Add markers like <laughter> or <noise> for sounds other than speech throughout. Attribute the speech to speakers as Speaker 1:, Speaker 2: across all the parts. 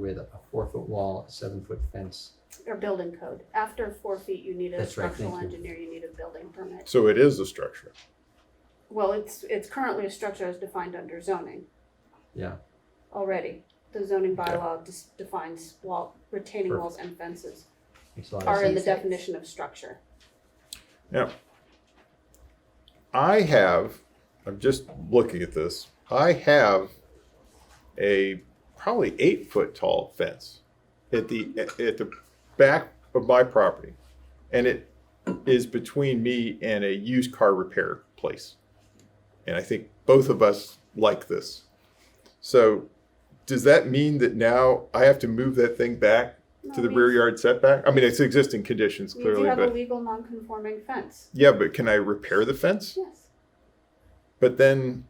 Speaker 1: with a four-foot wall, a seven-foot fence.
Speaker 2: or building code. After four feet, you need a
Speaker 1: That's right, thank
Speaker 2: structural
Speaker 1: you.
Speaker 2: engineer, you need a building permit.
Speaker 3: So it is a structure.
Speaker 2: Well, it's, it's currently a structure as defined under zoning
Speaker 1: Yeah,
Speaker 2: already. The zoning bylaw dis- defines wall, retaining walls and fences
Speaker 1: makes a lot of
Speaker 2: are in the
Speaker 1: sense.
Speaker 2: definition of structure.
Speaker 3: Now, I have, I'm just looking at this, I have a probably eight foot tall fence at the, at the back of my property. And it is between me and a used car repair place. And I think both of us like this. So does that mean that now I have to move that thing back to
Speaker 2: No,
Speaker 3: the
Speaker 2: we-
Speaker 3: rear yard setback? I mean, it's existing conditions
Speaker 2: You do
Speaker 3: clearly,
Speaker 2: have a
Speaker 3: but.
Speaker 2: legal non-conforming fence,
Speaker 3: Yeah, but can I repair the fence?
Speaker 2: yes.
Speaker 3: But then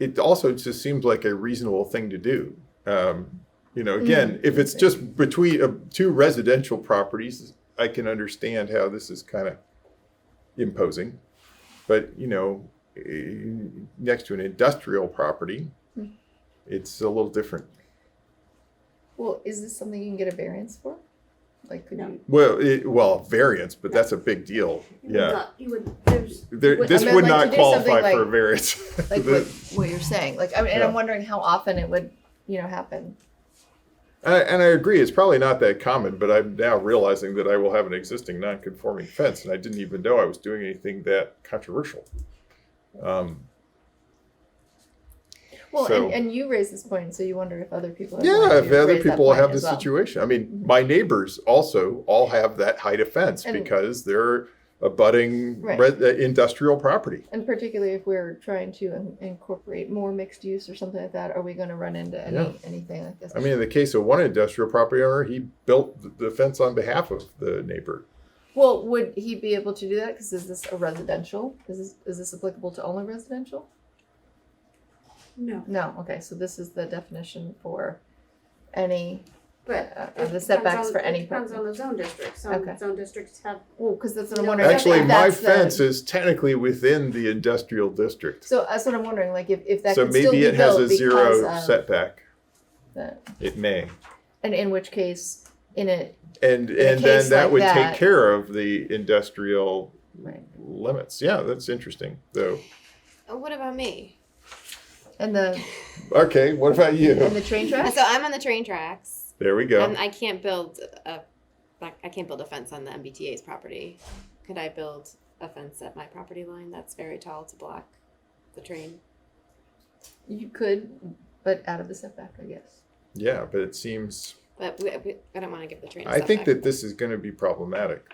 Speaker 3: it also just seems like a reasonable thing to do. Um, you know, again,
Speaker 4: Mm.
Speaker 3: if it's just between uh, two residential properties, I can understand how this is kind of imposing. But, you know, eh, next to an industrial property,
Speaker 4: Mm.
Speaker 3: it's a little different.
Speaker 4: Well, is this something you can get a variance for? Like, could
Speaker 2: No.
Speaker 4: you?
Speaker 3: Well, it, well, variance, but that's a big deal.
Speaker 2: You would
Speaker 3: Yeah.
Speaker 2: not- You would, there's,
Speaker 3: There,
Speaker 2: Would-
Speaker 3: this
Speaker 2: I
Speaker 4: meant,
Speaker 3: would
Speaker 4: like,
Speaker 3: not
Speaker 4: to do something
Speaker 3: qualify for a
Speaker 4: like-
Speaker 3: variance. <laughs>
Speaker 4: Like what, what you're saying? Like, I mean, and
Speaker 3: Yeah.
Speaker 4: I'm wondering how often it would, you know, happen.
Speaker 3: I, and I agree, it's probably not that common, but I'm now realizing that I will have an existing non-conforming fence, and I didn't even know I was doing anything that controversial. Um,
Speaker 4: Well,
Speaker 3: So-
Speaker 4: and, and you raised this point, so you wondered if other people. have
Speaker 3: yeah,
Speaker 4: wanted
Speaker 3: if
Speaker 4: to
Speaker 3: other
Speaker 4: raise that
Speaker 3: people
Speaker 4: point
Speaker 3: have
Speaker 4: as
Speaker 3: this
Speaker 4: well.
Speaker 3: situation, I mean, my neighbors also all have that height of fence
Speaker 4: And-
Speaker 3: because they're abutting
Speaker 4: Right.
Speaker 3: re- uh, industrial property.
Speaker 4: And particularly if we're trying to in- incorporate more mixed use or something like that, are we going to run into any
Speaker 3: Yeah.
Speaker 4: anything like this?
Speaker 3: I mean, in the case of one industrial property owner, he built th- the fence on behalf of the neighbor.
Speaker 4: well, would he be able to do that? Because is this a residential? Is this is this applicable to only residential?
Speaker 2: no,
Speaker 4: No. Okay, so this is the definition for any.
Speaker 2: but.
Speaker 4: Uh,
Speaker 2: it
Speaker 4: the
Speaker 2: depends
Speaker 4: setbacks
Speaker 2: on-
Speaker 4: for
Speaker 2: it
Speaker 4: any
Speaker 2: Depends on
Speaker 4: purpose.
Speaker 2: the zone district. Some
Speaker 4: Okay.
Speaker 2: zone districts have,
Speaker 4: Well, because that's what I'm
Speaker 2: No,
Speaker 4: wondering. if
Speaker 3: Actually, my
Speaker 4: that's the-
Speaker 3: fence is technically within the industrial district.
Speaker 4: So that's what I'm wondering, like if, if that
Speaker 3: So
Speaker 4: could still
Speaker 3: maybe
Speaker 4: be
Speaker 3: it has a
Speaker 4: built because um,
Speaker 3: zero
Speaker 4: of
Speaker 3: setback.
Speaker 4: that.
Speaker 3: It may.
Speaker 4: And in which case, in it,
Speaker 3: And
Speaker 4: a
Speaker 3: and then
Speaker 4: case
Speaker 3: that
Speaker 4: like
Speaker 3: would
Speaker 4: that-
Speaker 3: take care of the industrial
Speaker 4: right,
Speaker 3: limits. Yeah, that's interesting though.
Speaker 5: Oh, What about me?
Speaker 4: and the,
Speaker 3: Okay, what about
Speaker 4: and
Speaker 3: you?
Speaker 4: the train
Speaker 5: Uh,
Speaker 4: tracks?
Speaker 5: So I'm on the train tracks.
Speaker 3: There we
Speaker 5: Um,
Speaker 3: go.
Speaker 5: I can't build a, like, I can't build a fence on the MBTA's property. Could I build a fence at my property line that's very tall to block the train?
Speaker 4: You could, but out of the setback, I guess.
Speaker 3: Yeah, but it seems
Speaker 5: But we, we, I don't want to give the train. a
Speaker 3: I think
Speaker 5: setback.
Speaker 3: that this is going to be problematic.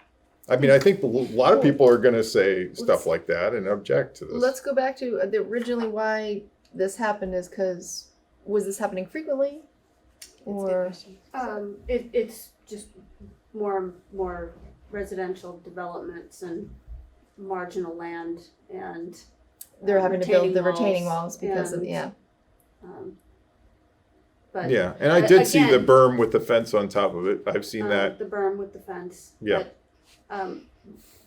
Speaker 3: I mean, I think a lot of people are going to say stuff like that and object to this.
Speaker 4: Let's go back to uh, the originally why this happened is because, was this happening frequently?
Speaker 5: That's a good
Speaker 4: Or,
Speaker 5: question.
Speaker 2: um, it, it's just more, more residential developments and marginal land and,
Speaker 4: they're having to build the
Speaker 2: Retaining
Speaker 4: retaining
Speaker 2: walls
Speaker 4: walls because of,
Speaker 2: and-
Speaker 4: yeah.
Speaker 2: um, but.
Speaker 3: Yeah, and I
Speaker 2: But
Speaker 3: did see the
Speaker 2: again-
Speaker 3: berm with the fence on top of it. I've seen
Speaker 2: um,
Speaker 3: that.
Speaker 2: The berm with the fence.
Speaker 3: Yeah.
Speaker 2: But, Um,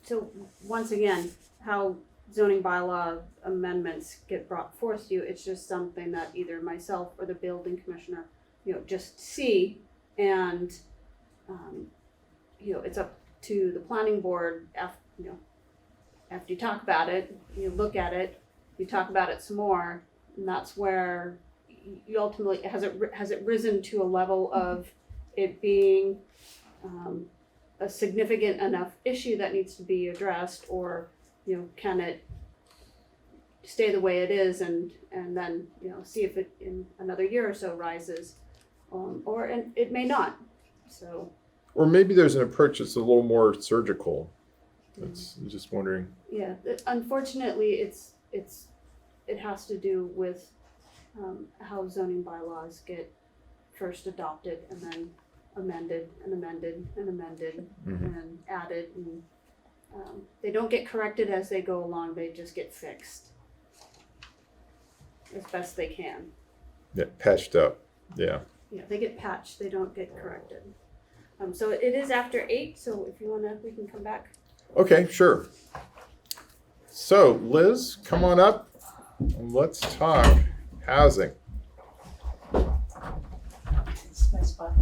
Speaker 2: so once again, how zoning bylaw amendments get brought forth to you, it's just something that either myself or the building commissioner, you know, just see and, um, you know, it's up to the planning board af, you know, after you talk about it, you look at it, you talk about it some more, and that's where y- you ultimately, has it, ri- has it risen to a level of it being um, a significant enough issue that needs to be addressed, or, you know, can it stay the way it is and, and then, you know, see if it in another year or so rises, um, or, and it may not, so,
Speaker 3: Or maybe there's an approach that's a little more surgical. That's I'm just wondering.
Speaker 2: yeah, th- unfortunately, it's, it's, it has to do with, um, how zoning bylaws get first adopted and then amended and amended and amended
Speaker 3: Mhm.
Speaker 2: and added and um, they don't get corrected as they go along they just get fixed as best they can
Speaker 3: Yeah, patched up. Yeah.
Speaker 2: you know they get patched they don't get corrected um, so it is after eight so if you want to we can come back
Speaker 3: Okay, sure. So Liz, come on up and let's talk housing.
Speaker 6: my spot.